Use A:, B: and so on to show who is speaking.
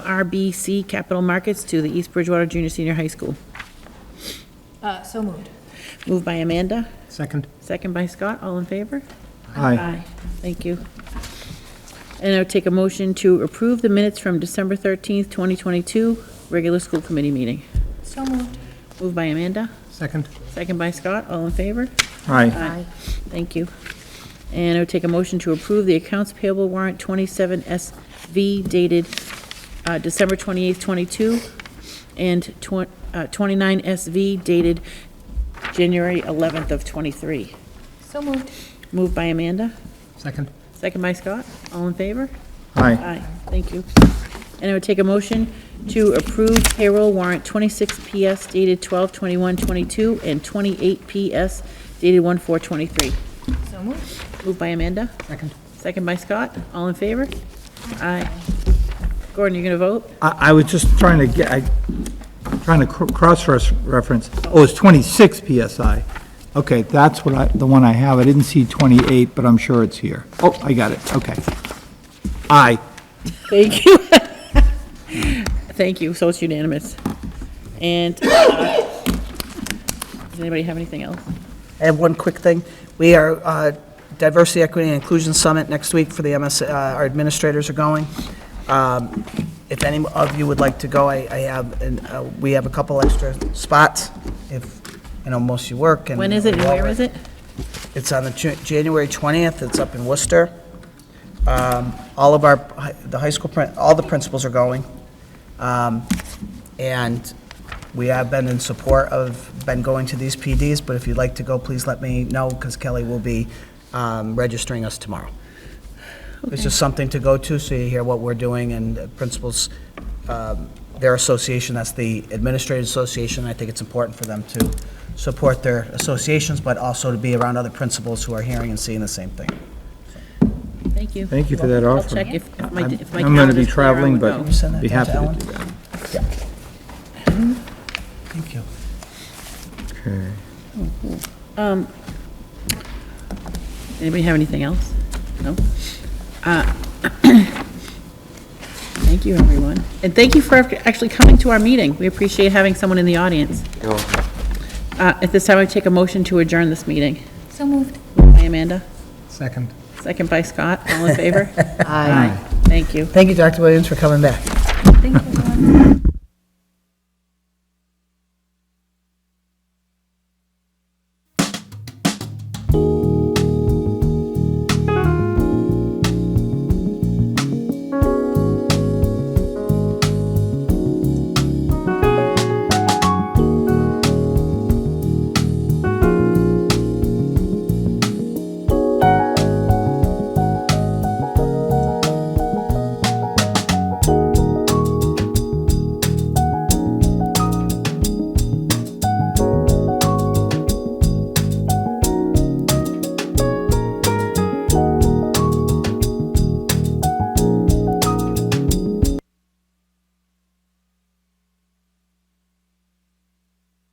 A: MRBC Capital Markets to the East Bridgewater Junior Senior High School.
B: Uh, So moved.
A: Moved by Amanda,
C: Second?
A: second by Scott, all in favor?
C: Aye.
A: Thank you. And I would take a motion to approve the minutes from December 13th, 2022, regular school committee meeting.
B: So moved.
A: Moved by Amanda,
C: Second?
A: second by Scott, all in favor?
C: Aye.
A: Aye. Thank you. And I would take a motion to approve the accounts payable warrant 27SV dated uh, December 28th, 22, and twen- uh, 29SV dated January 11th of 23.
B: So moved.
A: Moved by Amanda,
C: Second?
A: second by Scott. All in favor?
C: Aye.
A: Aye, thank you. And I would take a motion to approve payroll warrant 26PS dated 12/21/22 and 28PS dated 1/4/23.
B: So moved.
A: Moved by Amanda,
C: Second?
A: second by Scott. All in favor? Aye. Gordon, you gonna vote?
C: I, I was just trying to get, I, trying to cr- cross-reference. Oh, it's 26 PSI. Okay, that's what I, the one I have. I didn't see 28, but I'm sure it's here. Oh, I got it, okay. Aye.
A: Thank you. Thank you, so it's unanimous. And, uh, does anybody have anything else?
D: I have one quick thing. We are, uh, Diversity, Equity, and Inclusion Summit next week for the MS, uh, our administrators are going. Um, If any of you would like to go, I I have, an- uh, we have a couple extra spots, if, you know, most of you work. and-
A: When is it and where is it?
D: It's on the Ju- January 20th, it's up in Worcester. Um, All of our, hi- the high school, prin- all the principals are going. Um, And we have been in support of, been going to these PDs, but if you'd like to go, please let me know, because Kelly will be um, registering us tomorrow. It's just something to go to, so you hear what we're doing, and the principals, um, their association, that's the Administrative Association, I think it's important for them to support their associations, but also to be around other principals who are hearing and seeing the same thing.
A: Thank you.
C: Thank you for that
A: I'll
C: offer.
A: check if if my,
C: I'm
A: if my
C: I'm gonna be
A: calendar's clear, I
C: traveling,
A: will
C: but
A: go.
D: you send that
C: be
D: down
C: happy
D: to
C: to
D: Ellen?
C: do that.
D: Thank you.
C: Okay.
A: Anybody have anything else? No? Uh, Thank you, everyone. And thank you for actually coming to our meeting. We appreciate having someone in the audience. Uh, At this time, I take a motion to adjourn this meeting.
B: So moved.
A: By Amanda,
C: Second.
A: second by Scott. All in favor? Aye. Thank you.
D: Thank you, Dr. Williams, for coming back.
B: Thank you, everyone.